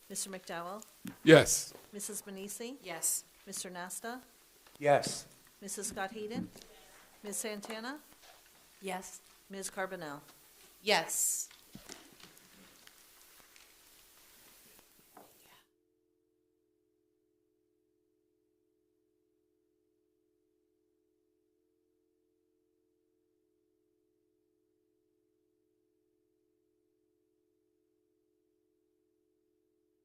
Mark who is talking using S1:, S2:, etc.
S1: Mr. McDowell?
S2: Yes.
S1: Mrs. Manisi?
S3: Yes.
S1: Mr. Nasta?
S4: Yes.
S1: Mrs. Scott Heaton? Ms. Santana?
S3: Yes.
S1: Ms. Carbonell?
S3: Yes.